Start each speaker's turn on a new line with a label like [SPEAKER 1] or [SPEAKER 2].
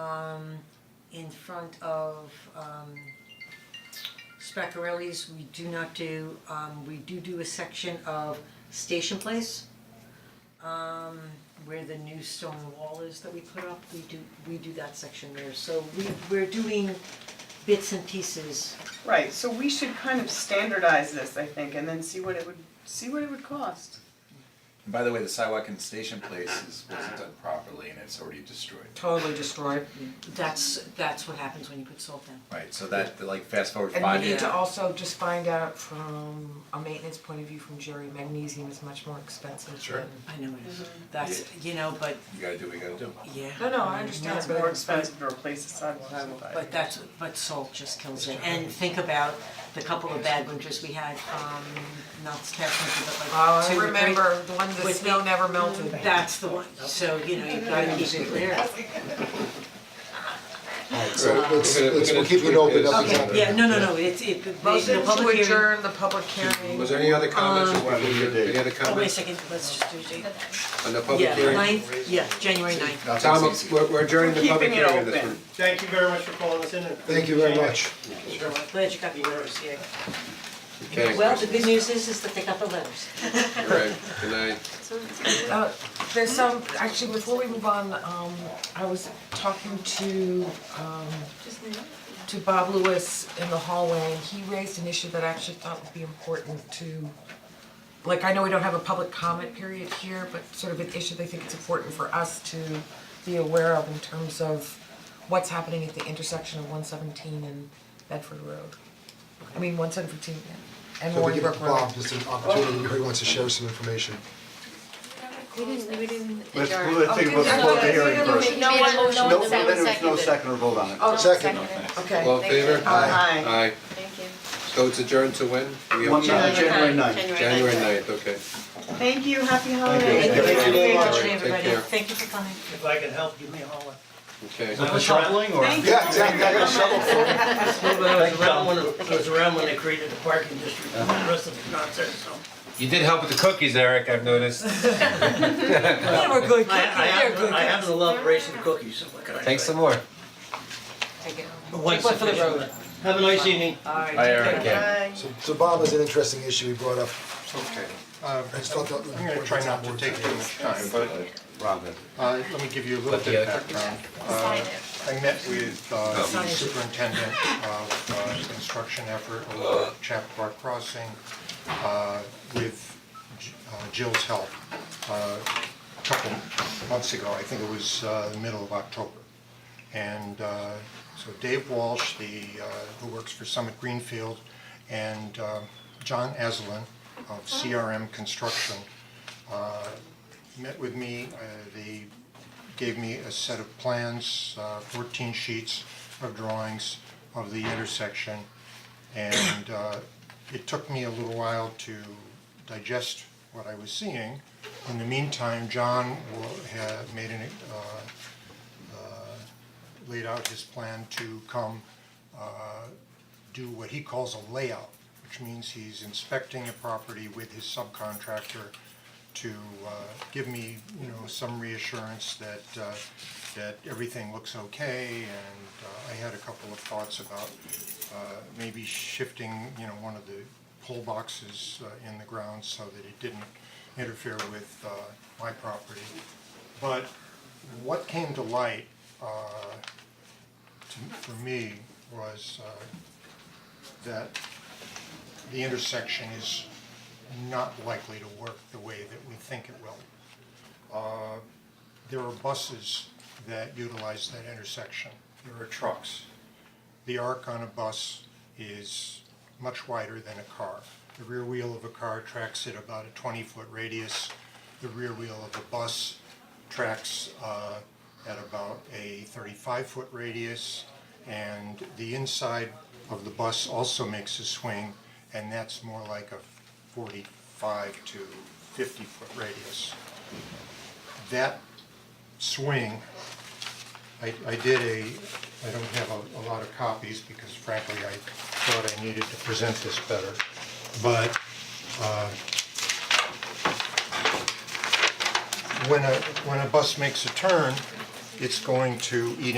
[SPEAKER 1] um in front of um Speckarelli's, we do not do, um we do do a section of Station Place. Um where the new stone wall is that we put up, we do, we do that section there, so we we're doing bits and pieces.
[SPEAKER 2] Right, so we should kind of standardize this, I think, and then see what it would, see what it would cost.
[SPEAKER 3] And by the way, the sidewalk in the station place is, wasn't done properly and it's already destroyed.
[SPEAKER 4] totally destroyed.
[SPEAKER 1] That's that's what happens when you put salt down.
[SPEAKER 3] Right, so that, like, fast forward
[SPEAKER 4] And we
[SPEAKER 3] five
[SPEAKER 4] need
[SPEAKER 3] years.
[SPEAKER 4] to also just find out from a maintenance point of view from Jerry, magnesium is much more expensive
[SPEAKER 3] Sure.
[SPEAKER 4] than.
[SPEAKER 1] I know it is, that's, you know, but
[SPEAKER 3] You gotta do what you gotta do.
[SPEAKER 1] yeah.
[SPEAKER 4] No, no, I
[SPEAKER 1] mean,
[SPEAKER 4] understand,
[SPEAKER 1] that's
[SPEAKER 2] It's more expensive to replace the sidewalk.
[SPEAKER 1] But that's, but salt just kills it, and think about the couple of bad winters we had, um, not this past winter, but
[SPEAKER 4] Oh,
[SPEAKER 1] like
[SPEAKER 4] I
[SPEAKER 1] two or three.
[SPEAKER 4] remember the Mm-hmm. one that
[SPEAKER 1] With
[SPEAKER 4] snow
[SPEAKER 1] me.
[SPEAKER 4] never melted.
[SPEAKER 1] That's the one, so you know, you gotta keep it clear.
[SPEAKER 5] Alright, so let's, let's, we'll keep it open up again.
[SPEAKER 1] Okay, yeah, no, no, no, it's it, the the
[SPEAKER 4] Motion
[SPEAKER 1] the
[SPEAKER 4] to
[SPEAKER 1] public hearing,
[SPEAKER 4] adjourn the public hearing.
[SPEAKER 6] Was there any other comments,
[SPEAKER 4] Um,
[SPEAKER 6] or what- any other
[SPEAKER 1] oh, wait a
[SPEAKER 6] comments
[SPEAKER 1] second, let's just do it.
[SPEAKER 6] on the public
[SPEAKER 1] Yeah,
[SPEAKER 6] hearing?
[SPEAKER 1] ninth, yeah, January ninth.
[SPEAKER 6] Tom, we're, we're adjourning the public
[SPEAKER 2] Keeping it
[SPEAKER 6] hearing on this
[SPEAKER 2] open.
[SPEAKER 6] one.
[SPEAKER 7] Thank you very much for calling us in and.
[SPEAKER 5] Thank you very much.
[SPEAKER 1] Glad you got the letters, yeah.
[SPEAKER 6] Okay,
[SPEAKER 1] Well, the good news is, is that they got the letters.
[SPEAKER 6] all right, good night.
[SPEAKER 4] Uh, there's some, actually, before we move on, um, I was talking to, um, to Bob Lewis in the hallway, and he raised an issue that I actually thought would be important to, like, I know we don't have a public comment period here, but sort of an issue they think it's important for us to be aware of in terms of what's happening at the intersection of one seventeen and Bedford Road. I mean, one seventeen, yeah, and
[SPEAKER 5] So we
[SPEAKER 4] Warren
[SPEAKER 5] give
[SPEAKER 4] Brook Road.
[SPEAKER 5] Bob just an opportunity, if he wants to share some information.
[SPEAKER 8] We didn't, we didn't
[SPEAKER 9] Let's,
[SPEAKER 8] adjourn.
[SPEAKER 9] let's think about the public hearing first.
[SPEAKER 8] No one, no one
[SPEAKER 9] No,
[SPEAKER 8] seconded.
[SPEAKER 9] then there was no second or vote on it.
[SPEAKER 8] No one
[SPEAKER 5] Second.
[SPEAKER 8] seconded.
[SPEAKER 4] Okay.
[SPEAKER 6] All in favor?
[SPEAKER 2] Aye.
[SPEAKER 6] Aye,
[SPEAKER 8] Thank you.
[SPEAKER 6] so it's adjourned to when? We have-
[SPEAKER 9] One, uh, January ninth.
[SPEAKER 6] January ninth, okay.
[SPEAKER 2] Thank you, happy holidays.
[SPEAKER 6] Thank you. Thank you very much.
[SPEAKER 2] Thank
[SPEAKER 6] Take
[SPEAKER 1] Everybody,
[SPEAKER 6] care.
[SPEAKER 1] thank you for coming.
[SPEAKER 7] If I can help, give me a holler.
[SPEAKER 6] Okay.
[SPEAKER 2] you. Thank you.
[SPEAKER 5] Yeah, exactly, I got a shovel full.
[SPEAKER 7] I was around when, I was around when they created the parking district, and the rest of the nonsense, so.
[SPEAKER 10] You did help with the cookies, Eric, I've noticed.
[SPEAKER 4] They were good, they're
[SPEAKER 7] I, I happen,
[SPEAKER 4] good.
[SPEAKER 7] I happen to love racing cookies, so what can I say?
[SPEAKER 10] Thanks some more.
[SPEAKER 4] Take it.
[SPEAKER 7] Once
[SPEAKER 4] Take one for the
[SPEAKER 7] sufficient.
[SPEAKER 4] road.
[SPEAKER 7] Have a nice evening.
[SPEAKER 6] Hi, Eric.
[SPEAKER 2] Bye.
[SPEAKER 5] So, so Bob has an interesting issue he brought up.
[SPEAKER 11] Okay, uh,
[SPEAKER 5] I just thought that.
[SPEAKER 11] I'm gonna try not to take too much time, but
[SPEAKER 9] Robin.
[SPEAKER 11] uh, let me give you a little bit of background. Uh, I met with uh, the superintendent of uh, construction effort along Chappaqua Crossing uh, with J- uh, Jill's help uh, a couple months ago, I think it was uh, the middle of October. And uh, so Dave Walsh, the, uh, who works for Summit Greenfield, and uh, John Aslan of CRM Construction uh, met with me, uh, they gave me a set of plans, uh, fourteen sheets of drawings of the intersection. And uh, it took me a little while to digest what I was seeing. In the meantime, John wa- had made an, uh, laid out his plan to come uh, do what he calls a layout, which means he's inspecting a property with his subcontractor to uh, give me, you know, some reassurance that, uh, that everything looks okay. And uh, I had a couple of thoughts about uh, maybe shifting, you know, one of the pole boxes uh, in the ground so that it didn't interfere with uh, my property. But what came to light uh, to- for me was uh, that the intersection is not likely to work the way that we think it will. Uh, There are buses that utilize that intersection. There are trucks. The arc on a bus is much wider than a car. The rear wheel of a car tracks at about a twenty-foot radius. The rear wheel of a bus tracks uh, at about a thirty-five foot radius. And the inside of the bus also makes a swing, and that's more like a forty-five to fifty foot radius. That swing I, I did a, I don't have a, a lot of copies because frankly, I thought I needed to present this better, but, uh, when a, when a bus makes a turn, it's going to eat